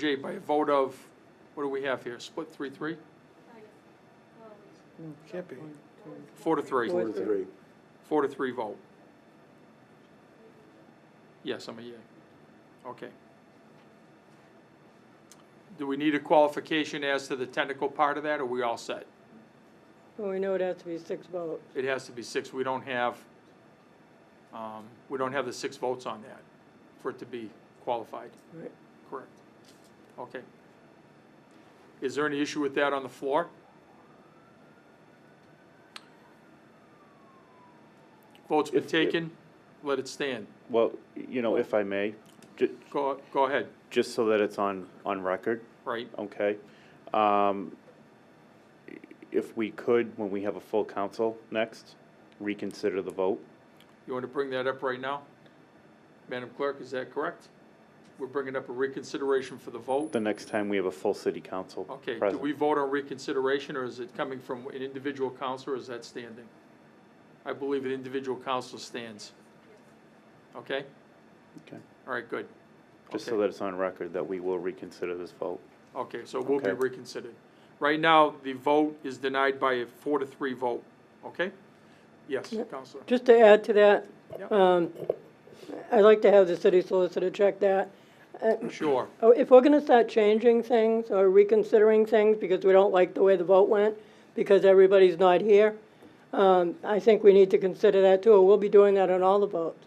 Jay, by a vote of, what do we have here, split three, three? Mm, Can't be. Four to three. Four Four to three. Four to three vote. Yes, I'm a yea. Okay. Do we need a qualification as to the technical part of that, or are we all set? Well, we know it has to be six votes. It has to be six, we don't have, um, we don't have the six votes on that for it to be qualified, Right. correct? Okay. Is there any issue with that on the floor? Vote's been If- if- taken, let it stand. Well, you know, if I may, ju- Go, go ahead, just so that it's on, on record, right? okay? Um, if we could, when we have a full council next, reconsider the vote. You want to bring that up right now? Madam Clerk, is that correct? We're bringing up a reconsideration for the vote? The next time we have a full city council Okay, do present. we vote on reconsideration, or is it coming from an individual counselor, or is that standing? I believe an individual counsel stands. Okay? Okay. All right, good. Just Okay. so that it's on record that we will reconsider this vote. Okay, so we'll be Okay. reconsidered. Right now, the vote is denied by a four to three vote, okay? Yes, Yeah. Counselor. Just to add to that, Yep. um, I'd like to have the city solicitor check that. Uh, Sure, oh, If we're gonna start changing things or reconsidering things because we don't like the way the vote went, because everybody's not here, um, I think we need to consider that too. We'll be doing that on all the votes.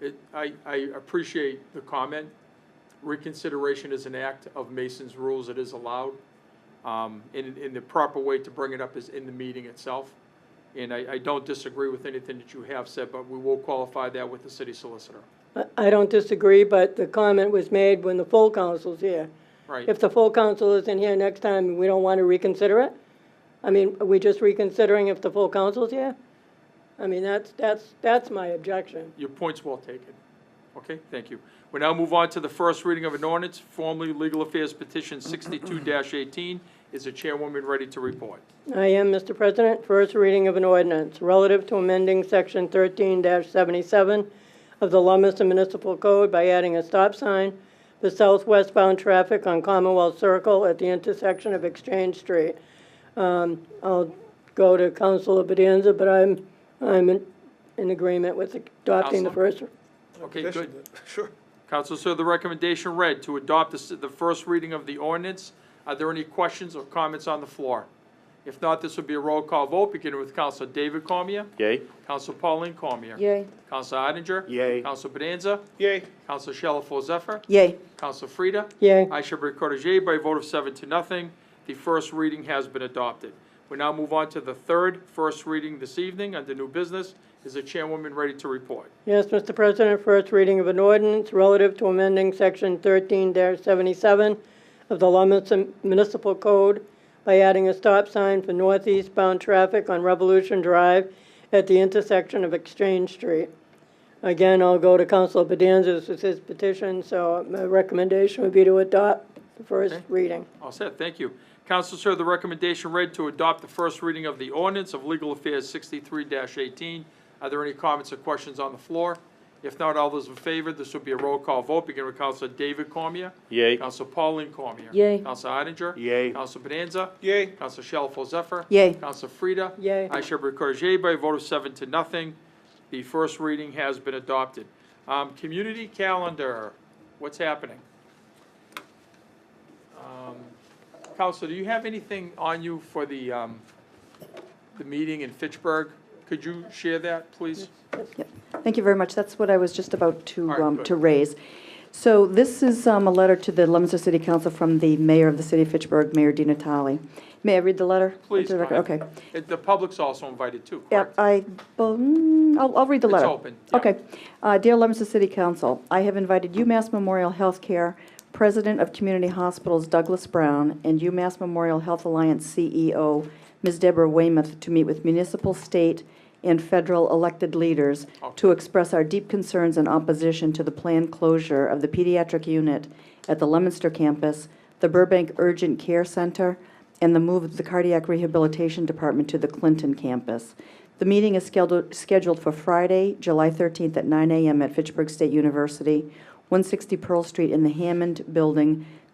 It, I, I appreciate the comment. Reconsideration is an act of Mason's rules, it is allowed. Um, and, and the proper way to bring it up is in the meeting itself. And I, I don't disagree with anything that you have said, but we will qualify that with the city solicitor. I- I don't disagree, but the comment was made when the full council's here. Right, If the full council isn't here next time, and we don't want to reconsider it? I mean, are we just reconsidering if the full council's here? I mean, that's, that's, that's my objection. your point's well taken. Okay, thank you. We now move on to the first reading of an ordinance, formerly Legal Affairs Petition sixty-two eighteen. Is the chairwoman ready to report? I am, Mr. President, first reading of an ordinance relative to amending Section 13-77 of the Lummester Municipal Code by adding a stop sign for southwestbound traffic on Commonwealth Circle at the intersection of Exchange Street. Um, I'll go to Councilor Bedanza, but I'm, I'm in- in agreement with adopting the Counselor? first. Okay, Petition good. it. Sure. Council, sir, the recommendation read to adopt the, the first reading of the ordinance. Are there any questions or comments on the floor? If not, this will be a roll call vote, beginning with Council David Cormier, Yay? Council Pauline Cormier. Yay. Council Odinger. Yay. Council Bonanza. Yay. Council Shalfo Zephyr. Yay. Council Frida. Yay. I shall record as yea by a vote of seven to nothing. The first reading has been adopted. We now move on to the third first reading this evening under new business. Is the chairwoman ready to report? Yes, Mr. President, first reading of an ordinance relative to amending Section 13-77 of the Lummester Municipal Code by adding a stop sign for northeastbound traffic on Revolution Drive at the intersection of Exchange Street. Again, I'll go to Council Bedanzas with his petition, so my recommendation would be to adopt the first Okay. reading. All set, thank you. Council, sir, the recommendation read to adopt the first reading of the ordinance of Legal Affairs sixty-three eighteen. Are there any comments or questions on the floor? If not, all those in favor, this will be a roll call vote, beginning with Council David Cormier. Yay? Council Pauline Cormier. Yay. Council Odinger. Yay. Council Bonanza. Yay. Council Shalfo Zephyr. Yay. Council Frida. Yay. I shall record yea by a vote of seven to nothing. The first reading has been adopted. Um, community calendar, what's happening? Um, Council, do you have anything on you for the, um, the meeting in Fitchburg? Could you share that, please? Thank you very much. That's what I was just about to, All right, um, good. to raise. So this is um, a letter to the Leominster City Council from the mayor of the city of Fitchburg, Mayor Di Natale. May I read the letter? Please, Into the go record? ahead. Okay. It- The public's also invited too, Yeah, correct? I, bel- mm, I'll, I'll read the It's letter. open, yeah. Okay. Uh, Dear Leominster City Council, I have invited UMass Memorial Healthcare, President of Community Hospitals Douglas Brown, and UMass Memorial Health Alliance CEO Ms. Deborah Weymouth to meet with municipal, state, and federal elected leaders Okay. to express our deep concerns and opposition to the planned closure of the pediatric unit at the Leominster campus, the Burbank Urgent Care Center, and the move of the Cardiac Rehabilitation Department to the Clinton campus. The meeting is scheduled, scheduled for Friday, July 13th at 9 a.m. at Fitchburg State University, 160 Pearl Street in the Hammond Building,